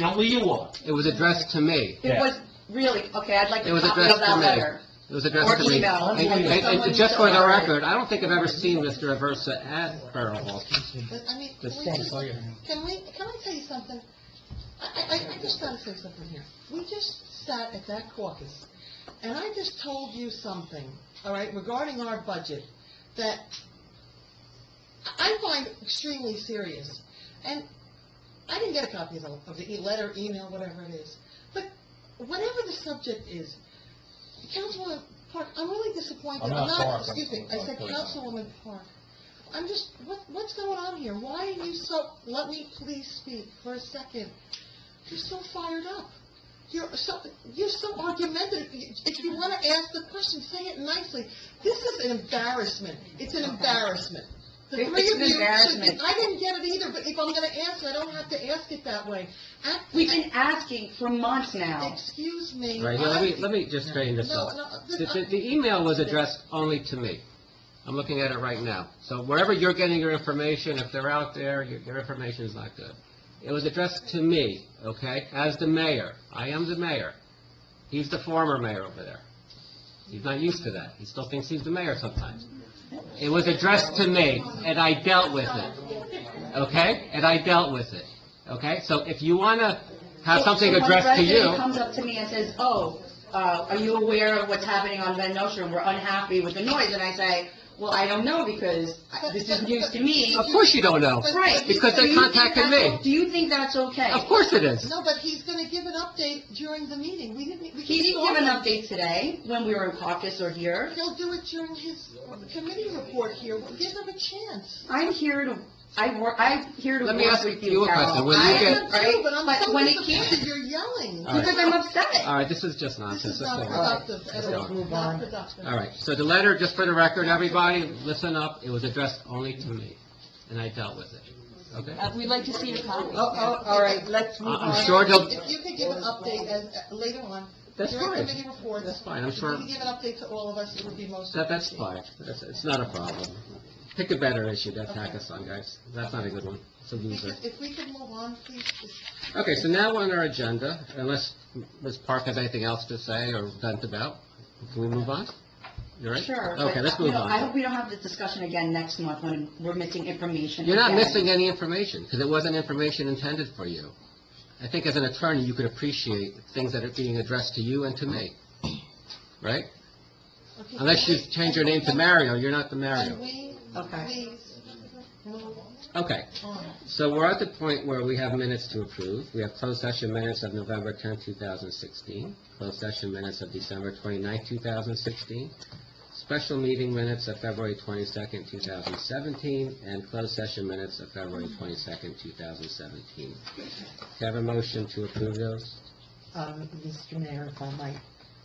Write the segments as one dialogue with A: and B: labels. A: Now, were you all?
B: It was addressed to me.
C: It
A: Yeah.
C: was really, okay, I'd like
B: It
C: a
B: was
C: copy
B: addressed
C: of
B: to
C: that
B: me.
C: letter.
B: It was addressed to
C: Or
B: me.
C: email.
B: And- and- and
C: Someone-
B: just for the
C: someone-
B: record, I don't think I've ever seen Mr. Aversa at Borough Hall.
D: But, I mean,
B: Just
D: can we
B: saying,
D: just- can we, can I tell you something? I, I, I- I just gotta say something here. We just sat at that caucus, and I just told you something, all right, regarding our budget, that I I find extremely serious. And I didn't get a copy of the, of the e- letter, email, whatever it is. But whatever the subject is, Councilwoman Park, I'm really disappointed.
A: I'm not Park, I'm-
D: Excuse me, I
A: I'm
D: said
A: Clayton.
D: Councilwoman Park. I'm just, what, what's going on here? Why are you so, let me please speak for a second. You're so fired up. You're so, you're so argumentative. You- If you want to ask the question, say it nicely. This is an embarrassment. It's an embarrassment. The
C: It-
D: three
C: it's
D: of
C: an
D: you should-
C: embarrassment.
D: I didn't get it either, but if I'm going to answer, I don't have to ask it that way. I-
C: We've been asking for months now.
D: Excuse me.
B: All right, here, let me,
D: I-
B: let me just straighten this
D: No,
B: up.
D: no,
B: The,
D: I-
B: the- the email was addressed only to me. I'm looking at it right now. So wherever you're getting your information, if they're out there, your, your information is not good. It was addressed to me, okay, as the mayor. I am the mayor. He's the former mayor over there. He's not used to that. He still thinks he's the mayor sometimes. It was addressed to me, and I dealt with it, okay? And I dealt with it, okay? So if you want to have
C: If
B: something
C: someone
B: addressed to you...
C: resident comes up to me and says, "Oh, uh, are you aware of what's happening on Van Nostrand? We're unhappy with the noise." And I say, "Well, I don't know because I- this is news to me."
B: Of course you don't know.
C: Right.
B: Because they
C: Do you think
B: contacted
C: that's-
B: me.
C: Do you think that's okay?
B: Of course it is.
D: No, but he's going to give an update during the meeting. We didn't, we.
C: He didn't
D: saw
C: give an
D: him.
C: update today when we were in caucus or here.
D: He'll do it during his committee report here. Give him a chance.
C: I'm here to, I work, I'm here to
B: Let me
C: work
B: ask
C: with
B: you
C: you,
B: a question.
C: Carol.
B: When you
C: I
B: get-
C: am
D: am too,
C: right?
D: But I'm
C: But
D: so
C: when it came,
D: disappointed you're yelling.
B: All right.
C: because I'm upset.
B: All right, this is just
D: This
B: nonsense.
D: is
B: Let's
D: not
B: move on.
D: productive
B: Let's
D: at
B: go
D: all.
B: on.
D: Not productive.
B: All right, so the letter, just for the record, everybody, listen up, it was addressed only to me, and I dealt with it, okay?
C: Uh, We'd like to see your copy.
D: Oh, oh, all right,
C: let's
B: move I'm on. Uh, sure they'll-
D: If you could give an update as, uh, later on.
B: That's
D: During
B: fine.
D: committee reports.
B: That's fine, I'm
D: if
B: sure-
D: you could give an update to all of us, it would be most.
B: That, that's fine, that's, it's not a problem. Pick a better issue to attack us on, guys, that's not a good one, it's a
D: If
B: loser.
D: we could- If we could move on, please. just-
B: Okay, so now we're on our agenda, unless Ms. Park has anything else to say or vent about, can we move on? You all right?
C: Sure. but,
B: Okay, let's
C: you
B: move
C: know,
B: on.
C: I hope we don't have this discussion again next month when we're missing information.
B: You're not
C: again.
B: missing any information, because it wasn't information intended for you. I think as an attorney, you could appreciate things that are being addressed to you and to me, right?
D: okay,
B: Unless you
D: can we-
B: change your name to Mario, you're not the
D: Can
B: Mario.
D: we,
C: Okay.
D: please, move
B: Okay,
D: on?
B: so we're at the point where we have minutes to approve. We have closed session minutes of November 10, 2016, closed session minutes of December 29, 2016, special meeting minutes of February 22, 2017, and closed session minutes of February 22, 2017. Do you have a motion to approve those?
E: Um, Mr. Mayor, if I might,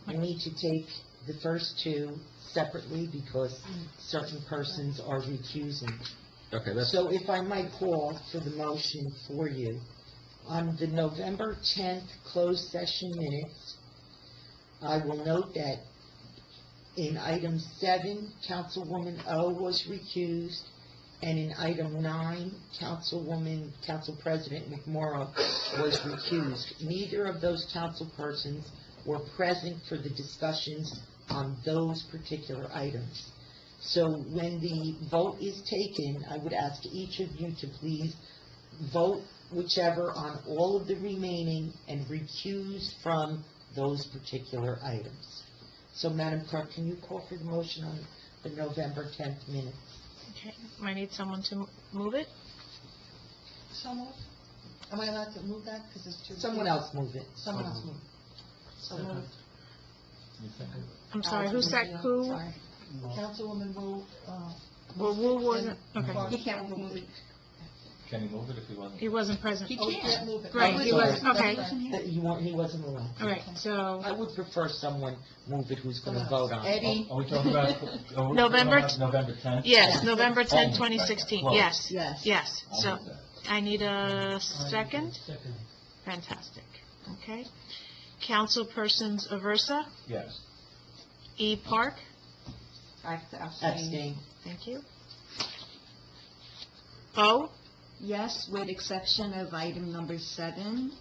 E: I need to take the first two separately because
D: Mm.
E: certain persons are recusing.
B: Okay, let's,
E: So if I might call for the motion for you, on the November 10th closed session minutes, I will note that in item seven, Councilwoman O was recused, and in item nine, Councilwoman, Council President McMorro was recused. Neither of those council persons were present for the discussions on those particular items. So when the vote is taken, I would ask each of you to please vote whichever on all of the remaining and recuse from those particular items. So Madam Clerk, can you call for the motion on the November 10th minute?
F: Okay, I need someone to m- move it.
D: So moved? Am I allowed to move that, because it's too...
E: Someone else move it.
D: Someone else move. So moved.
F: I'm sorry, who sec, who,
D: Sorry. Councilwoman Wu, uh,
F: well, Wu wasn't, okay,
C: He can't remove it.
A: Can you move it if you want?
F: he wasn't present.
C: He
D: oh, you
C: can't.
D: can't move it.
F: Right,
D: Oh,
E: he
D: it's-
E: was-
D: that's
F: okay.
D: right.
E: That you weren't, he wasn't allowed.
F: All right, so,
E: I would prefer someone move it who's going to vote on it.
D: Eddie,
A: Are we talking about? are we-
F: November
A: about November 10th?
F: yes, November 10,
A: Oh,
F: 2016,
A: close. Oh.
F: yes,
D: yes.
F: yes.
A: I'll
F: So
A: move that.
F: I need a second? Fantastic, okay. Councilpersons Aversa,
A: Yes.
F: E. Park,
C: I have to abstain.
E: Abstain.
F: thank you. O,
G: Yes, with exception of item number seven,